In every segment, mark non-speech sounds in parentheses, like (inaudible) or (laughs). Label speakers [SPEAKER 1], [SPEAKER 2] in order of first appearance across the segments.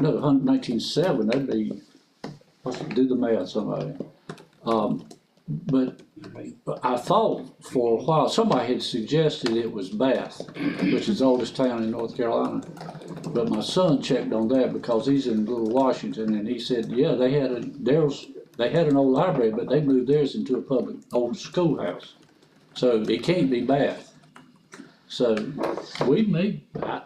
[SPEAKER 1] no, hun- 1907, that'd be, let's do the math somebody. Um, but I thought for a while, somebody had suggested it was Bath, which is the oldest town in North Carolina. But my son checked on that because he's in Little Washington and he said, yeah, they had a, theirs, they had an old library, but they moved theirs into a public, old schoolhouse. So it can't be Bath. So we may, I,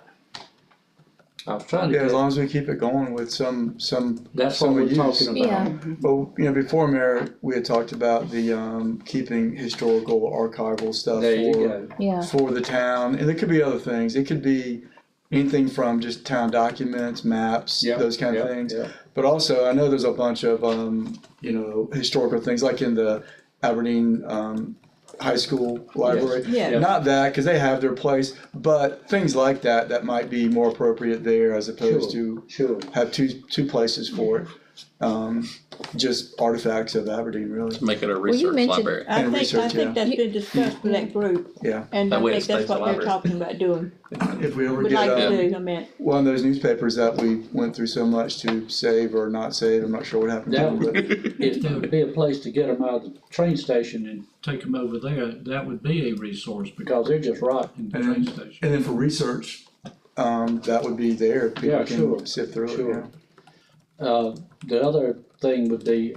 [SPEAKER 1] I was trying to.
[SPEAKER 2] Yeah, as
[SPEAKER 1] get-
[SPEAKER 2] long as we keep it going with some, some,
[SPEAKER 1] That's what
[SPEAKER 2] some
[SPEAKER 1] we're
[SPEAKER 2] use.
[SPEAKER 1] talking about.
[SPEAKER 3] Yeah.
[SPEAKER 2] Well, you know, before Mayor, we had talked about the, um, keeping historical archival stuff
[SPEAKER 1] There you
[SPEAKER 2] for,
[SPEAKER 1] go.
[SPEAKER 3] Yeah,
[SPEAKER 2] for the town, and it could be other things. It could be anything from just town documents, maps,
[SPEAKER 1] Yeah,
[SPEAKER 2] those kind of
[SPEAKER 1] yeah,
[SPEAKER 2] things.
[SPEAKER 1] yeah.
[SPEAKER 2] But also, I know there's a bunch of um, you know historical things like in the Aberdeen um, High School Library.
[SPEAKER 4] Yeah.
[SPEAKER 1] Yeah.
[SPEAKER 2] Not that because they have their place, but things like that that might be more appropriate there as opposed to
[SPEAKER 1] Sure.
[SPEAKER 2] have two two places for it. Um, just artifacts of Aberdeen, really.
[SPEAKER 5] Make it a
[SPEAKER 3] you
[SPEAKER 5] research
[SPEAKER 3] mentioned-
[SPEAKER 5] library.
[SPEAKER 4] I
[SPEAKER 2] And
[SPEAKER 4] think, I
[SPEAKER 2] research, yeah.
[SPEAKER 4] think that's been discussed with that group.
[SPEAKER 2] Yeah.
[SPEAKER 4] And
[SPEAKER 5] That
[SPEAKER 4] I
[SPEAKER 5] way it
[SPEAKER 4] think that's
[SPEAKER 5] stays
[SPEAKER 4] what they're
[SPEAKER 5] library.
[SPEAKER 4] talking about doing.
[SPEAKER 2] If we ever
[SPEAKER 4] Would
[SPEAKER 2] get
[SPEAKER 4] like
[SPEAKER 2] um,
[SPEAKER 4] to do, I mean,
[SPEAKER 2] one of those newspapers that we went through so much to save or not save. I'm not sure what happened.
[SPEAKER 1] That
[SPEAKER 2] to it,
[SPEAKER 1] would, if there would be a place to get them out of the train station and,
[SPEAKER 6] take them over there, that would be a resource
[SPEAKER 1] because
[SPEAKER 6] because
[SPEAKER 1] they're just rotten.
[SPEAKER 6] in the train
[SPEAKER 2] And-
[SPEAKER 6] station.
[SPEAKER 2] but- and then for research, um, that would be there. People
[SPEAKER 1] Yeah,
[SPEAKER 2] can
[SPEAKER 1] sure,
[SPEAKER 2] sift through it.
[SPEAKER 1] sure.
[SPEAKER 2] yeah.
[SPEAKER 1] Uh, the other thing would be,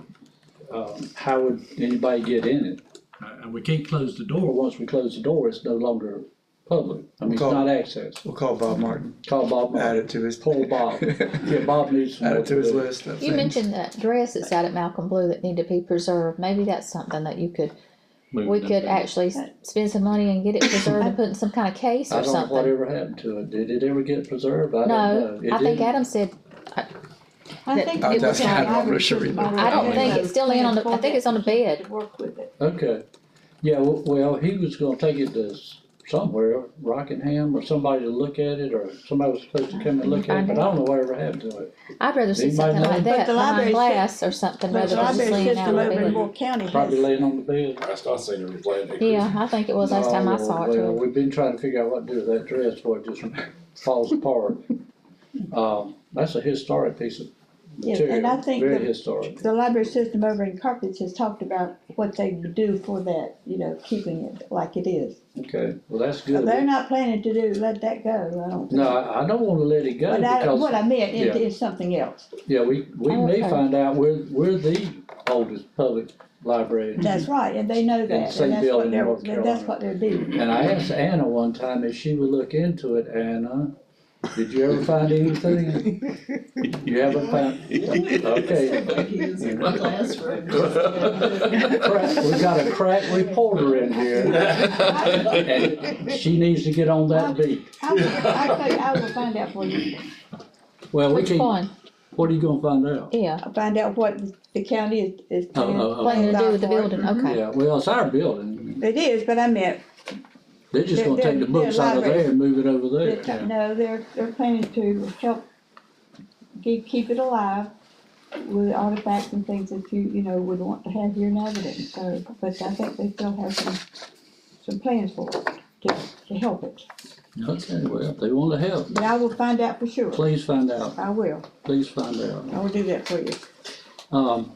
[SPEAKER 1] um, how would anybody get in it?
[SPEAKER 6] Uh, And we can't close the
[SPEAKER 1] Or
[SPEAKER 6] door.
[SPEAKER 1] once we close the door, it's no longer public. I mean, it's
[SPEAKER 2] Call-
[SPEAKER 1] not access.
[SPEAKER 2] We'll call Bob Martin.
[SPEAKER 1] Call Bob.
[SPEAKER 2] Add it to his
[SPEAKER 1] Poor
[SPEAKER 2] (laughs)
[SPEAKER 1] Bob. Yeah, Bob needs. some
[SPEAKER 2] Add it to his
[SPEAKER 1] more
[SPEAKER 2] list. Of
[SPEAKER 3] you
[SPEAKER 2] things.
[SPEAKER 3] mentioned that dress that's out at Malcolm Blue that need to be preserved, maybe that's something that you could, we could actually s- spend some money and get it preserved and put in some kind of case
[SPEAKER 1] I
[SPEAKER 3] or
[SPEAKER 1] don't know
[SPEAKER 3] something.
[SPEAKER 1] whatever happened to it. Did it ever get preserved? I don't know.
[SPEAKER 3] No,
[SPEAKER 1] It
[SPEAKER 3] I think
[SPEAKER 1] didn't.
[SPEAKER 3] Adam said,
[SPEAKER 4] I
[SPEAKER 3] That-
[SPEAKER 4] think.
[SPEAKER 3] I'll
[SPEAKER 4] it
[SPEAKER 3] tell
[SPEAKER 4] was
[SPEAKER 3] you,
[SPEAKER 4] on
[SPEAKER 3] I'm
[SPEAKER 4] the
[SPEAKER 2] not
[SPEAKER 4] library
[SPEAKER 2] sure
[SPEAKER 4] system
[SPEAKER 2] either.
[SPEAKER 4] already.
[SPEAKER 3] I don't think, it's still in on the, I
[SPEAKER 4] Plans
[SPEAKER 3] think it's on the
[SPEAKER 4] for that
[SPEAKER 3] bed.
[SPEAKER 4] To work with it.
[SPEAKER 1] Okay, yeah, w- well, he was gonna take it to s- somewhere, Rockingham, or somebody to look at it, or somebody was supposed to come and look at it, but I don't know whatever happened to it.
[SPEAKER 3] I'd rather see
[SPEAKER 1] Anybody
[SPEAKER 3] something
[SPEAKER 1] know?
[SPEAKER 3] like
[SPEAKER 1] But
[SPEAKER 3] that
[SPEAKER 4] the
[SPEAKER 3] behind
[SPEAKER 4] library sys-
[SPEAKER 3] glass or something
[SPEAKER 4] But
[SPEAKER 3] rather
[SPEAKER 4] the
[SPEAKER 3] than just
[SPEAKER 4] library
[SPEAKER 3] laying out
[SPEAKER 4] system
[SPEAKER 3] on the
[SPEAKER 4] over in
[SPEAKER 3] bed.
[SPEAKER 4] Moore County has,
[SPEAKER 1] Probably laying on the bed.
[SPEAKER 7] Last I seen it was laying acres.
[SPEAKER 3] Yeah, I think it was last time
[SPEAKER 1] No,
[SPEAKER 3] I saw it
[SPEAKER 1] well,
[SPEAKER 3] too.
[SPEAKER 1] We've been trying to figure out what to do with that dress, where it just (laughs) falls apart. Um, that's a historic piece of
[SPEAKER 4] Yes, and I
[SPEAKER 1] material,
[SPEAKER 4] think
[SPEAKER 1] very
[SPEAKER 4] the-
[SPEAKER 1] historic.
[SPEAKER 4] the library system over in Carpets has talked about what they do for that, you know, keeping it like it is.
[SPEAKER 1] Okay, well, that's
[SPEAKER 4] So They're
[SPEAKER 1] good.
[SPEAKER 4] not planning to do, let that go, I don't think.
[SPEAKER 1] No, I, I don't wanna let it go
[SPEAKER 4] But I, what
[SPEAKER 1] because,
[SPEAKER 4] I meant
[SPEAKER 1] yeah.
[SPEAKER 4] is, is something else.
[SPEAKER 1] yeah, we, we
[SPEAKER 3] Oh,
[SPEAKER 1] may
[SPEAKER 3] okay.
[SPEAKER 1] find out, we're, we're the oldest public library in
[SPEAKER 4] That's right, and they know
[SPEAKER 1] the
[SPEAKER 4] that,
[SPEAKER 1] same
[SPEAKER 4] and that's
[SPEAKER 1] building
[SPEAKER 4] what
[SPEAKER 1] in
[SPEAKER 4] they're,
[SPEAKER 1] North
[SPEAKER 4] and that's
[SPEAKER 1] Carolina.
[SPEAKER 4] what they're doing.
[SPEAKER 1] And I asked Anna one time if she would look into it, Anna, did you ever find anything? You haven't found, okay,
[SPEAKER 4] (laughs)
[SPEAKER 8] He's in the classroom.
[SPEAKER 1] crack, we got a crack reporter in here, and she needs to get on that beat.
[SPEAKER 4] I will, I will, I will find out for you,
[SPEAKER 1] Well, we
[SPEAKER 3] Which
[SPEAKER 1] can,
[SPEAKER 3] one?
[SPEAKER 1] what are you gonna find out?
[SPEAKER 3] Yeah,
[SPEAKER 4] I'll find out what the county is, is
[SPEAKER 1] Oh,
[SPEAKER 4] planning.
[SPEAKER 1] oh, oh.
[SPEAKER 3] planning to do with the
[SPEAKER 4] plans are
[SPEAKER 3] building, okay.
[SPEAKER 1] Yeah, well, it's our building,
[SPEAKER 4] for it. It is, but I meant,
[SPEAKER 1] they're just gonna take the books out of there and move it over
[SPEAKER 4] they're ta-
[SPEAKER 1] there.
[SPEAKER 4] no, they're, they're planning to help keep, keep it alive with artifacts and things that you, you know, would want to have here in Evanston, so, but I think they still have some, some plans for it, to, to help it.
[SPEAKER 1] Okay, well, if they wanna help,
[SPEAKER 4] But I will find out for sure,
[SPEAKER 1] please find out,
[SPEAKER 4] I will,
[SPEAKER 1] please find out.
[SPEAKER 4] I will do that for you.
[SPEAKER 1] Um,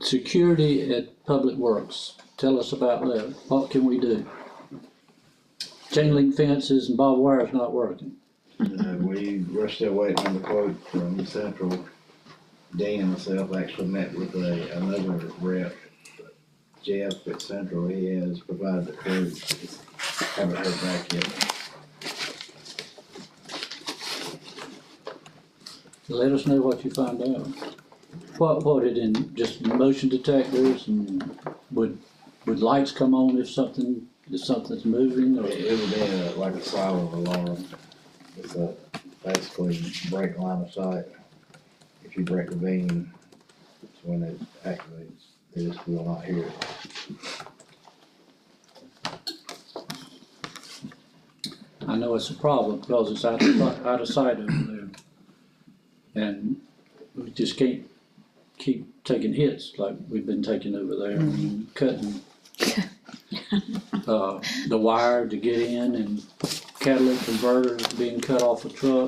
[SPEAKER 1] security at Public Works, tell us about that, what can we do? Chain link fences and barbed wire is not working,
[SPEAKER 9] Uh, we were still waiting on the quote from Central. Dan and myself actually met with a, another rep, Jeff at Central, he has provided the quote, Just haven't heard back yet.
[SPEAKER 1] let us know what you find out. What, what it in, just motion detectors and would, would lights come on if something, if something's moving or?
[SPEAKER 9] It it would be a- like a silent alarm, it's a, basically break line of sight. If you break the beam, it's when it activates, they just will not hear it.
[SPEAKER 1] I know it's a problem because it's out of, si- out of sight over there. And we just can't keep taking hits like we've been taking over there and cutting uh, the wire to get in and catalytic converters being cut off a truck.